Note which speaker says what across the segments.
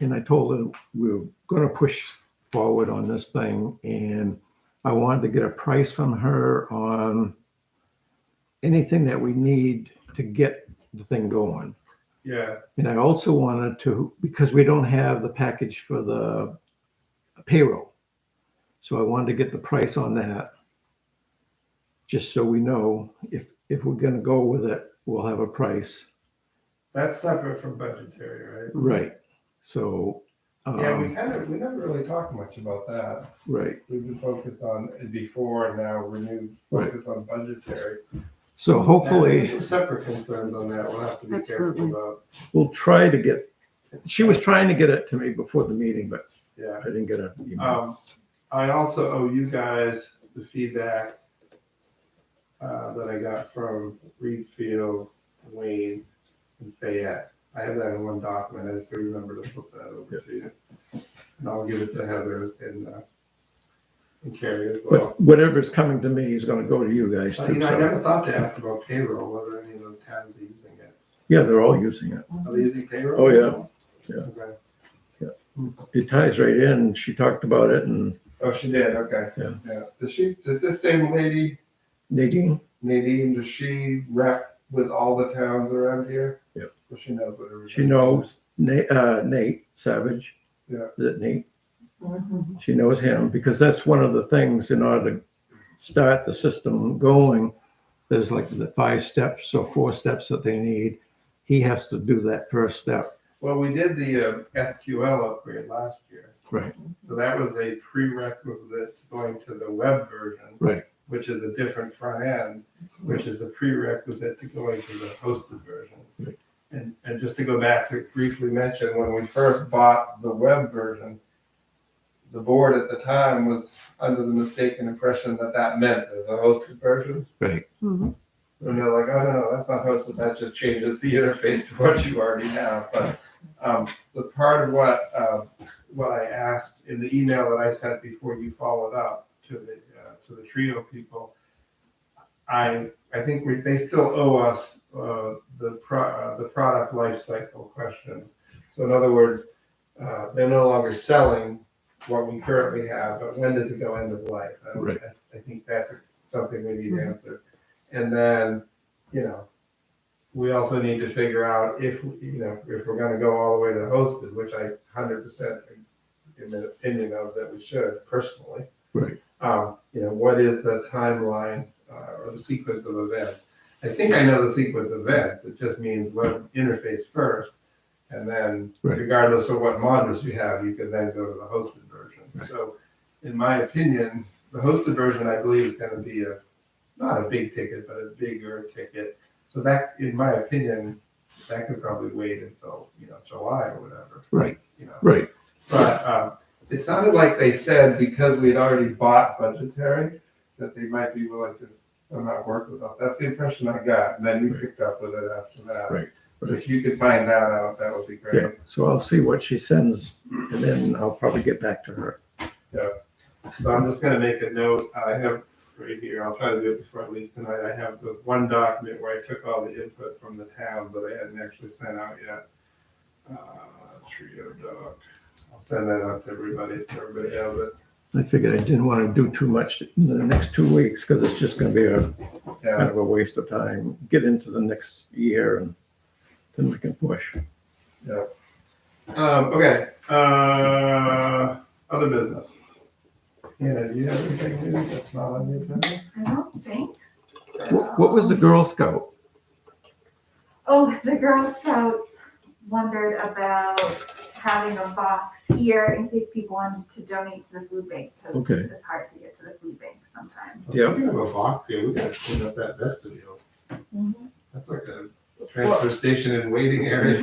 Speaker 1: and I told her we're going to push forward on this thing, and I wanted to get a price from her on anything that we need to get the thing going.
Speaker 2: Yeah,
Speaker 1: And I also wanted to, because we don't have the package for the payroll. So I wanted to get the price on that. Just so we know if, if we're gonna go with it, we'll have a price.
Speaker 2: that's separate from budgetary, right?
Speaker 1: Right. So,
Speaker 2: Yeah, we
Speaker 1: um,
Speaker 2: kind of, we never really talked much about that.
Speaker 1: right.
Speaker 2: We've been focused on it before and now renewed
Speaker 1: Right.
Speaker 2: focus on budgetary.
Speaker 1: So
Speaker 2: There's
Speaker 1: hopefully
Speaker 2: Some separate concerns on that. We'll have to be careful
Speaker 3: Absolutely.
Speaker 2: about.
Speaker 1: we'll try to get, she was trying to get it to me before the meeting, but
Speaker 2: Yeah.
Speaker 1: I didn't get a email.
Speaker 2: Um, I also owe you guys the feedback uh, that I got from Reed Field, Wayne, and Fayette. I have that in one document. I just remember to flip that over to you. And I'll give it to Heather and, uh, and Carrie as well.
Speaker 1: But whatever's coming to me is gonna go to you guys
Speaker 2: But, Oh, you
Speaker 1: too.
Speaker 2: know, I
Speaker 1: So,
Speaker 2: never thought to ask about payroll, whether any of those towns are using it.
Speaker 1: yeah, they're all using it.
Speaker 2: Are they using payroll?
Speaker 1: Oh, yeah. Yeah.
Speaker 2: Okay.
Speaker 1: It ties right in. She talked about it and
Speaker 2: Oh, she did, okay.
Speaker 1: Yeah.
Speaker 2: Yeah. Does she, does this same lady
Speaker 1: Nadine,
Speaker 2: Nadine, does she rep with all the towns around here?
Speaker 1: Yep.
Speaker 2: So she knows what everybody.
Speaker 1: she knows Nate, uh, Nate Savage.
Speaker 2: Yeah.
Speaker 1: Is it Nate? She knows him because that's one of the things in order to start the system going. There's like the five steps or four steps that they need. He has to do that first step.
Speaker 2: Well, we did the uh, SQL upgrade last year.
Speaker 1: Right.
Speaker 2: So that was a prerequisite going to the web version.
Speaker 1: Right.
Speaker 2: Which is a different front end, which is a prerequisite to going to the hosted version.
Speaker 1: Right.
Speaker 2: And, and just to go back to briefly mention, when we first bought the web version, the board at the time was under the mistaken impression that that meant the hosted version.
Speaker 1: Right.
Speaker 3: Mhm.
Speaker 2: And they're like, oh, no, that's not hosted. That just changes the interface to what you already have. But um, the part of what uh, what I asked in the email that I sent before you followed up to the uh, to the trio people, I I think we, they still owe us uh, the pro, uh, the product lifecycle question. So in other words, uh, they're no longer selling what we currently have, but when does it go end of life? I-
Speaker 1: Right.
Speaker 2: I, I think that's something we need to answer. And then, you know, we also need to figure out if, you know, if we're gonna go all the way to hosted, which I hundred percent am an opinion of that we should personally.
Speaker 1: Right.
Speaker 2: Um, you know, what is the timeline, uh, or the sequence of events? I think I know the sequence of events. It just means web interface first. And then
Speaker 1: Right.
Speaker 2: regardless of what modules you have, you can then go to the hosted version.
Speaker 1: Right.
Speaker 2: So in my opinion, the hosted version, I believe, is gonna be a, not a big ticket, but a bigger ticket. So that, in my opinion, that could probably wait until, you know, July or whatever,
Speaker 1: Right.
Speaker 2: you know.
Speaker 1: Right.
Speaker 2: But um, it sounded like they said because we had already bought budgetary, that they might be willing to somehow work with us. That's the impression I got, and then you picked up with it after that.
Speaker 1: Right.
Speaker 2: But if you could find that out, that would be
Speaker 1: Yeah.
Speaker 2: great.
Speaker 1: So I'll see what she sends and then I'll probably get back to her.
Speaker 2: So I'm just gonna make a note, I have right here, I'll try to do it before I leave tonight, I have the one document where I took all the input from the town that I hadn't actually sent out yet. Uh, Trio doc, I'll send that out to everybody, so everybody has it.
Speaker 1: I figured I didn't want to do too much in the next two weeks because it's just going to be a
Speaker 2: Yeah.
Speaker 1: kind of a waste of time. Get into the next year and then we can push.
Speaker 2: Um, okay, uh, other business. Hannah, do you have anything new that's not on the agenda?
Speaker 4: I don't think.
Speaker 1: What, what was the Girl Scout?
Speaker 4: Oh, the Girl Scouts wondered about having a box here in case people wanted to donate to the food bank. 'cause
Speaker 1: Okay.
Speaker 4: It's hard to get to the food bank sometimes.
Speaker 1: Yeah.
Speaker 2: We have a box here, we gotta clean up that vestibule.
Speaker 4: Mhm.
Speaker 2: That's like a transfer station and waiting area.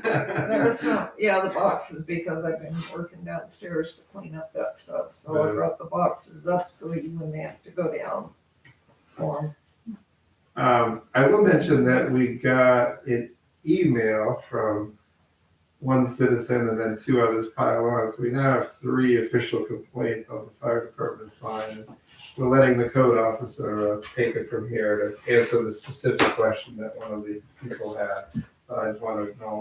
Speaker 5: There was some, yeah, the boxes, because I've been working downstairs to clean up that stuff, so I
Speaker 2: Yeah.
Speaker 5: brought the boxes up so you wouldn't have to go down. for 'em.
Speaker 2: Um, I will mention that we got an email from one citizen and then two others pile on. So we now have three official complaints on the fire department's line. We're letting the code officer uh, take it from here to answer the specific question that one of the people had. Uh, I just want to acknowledge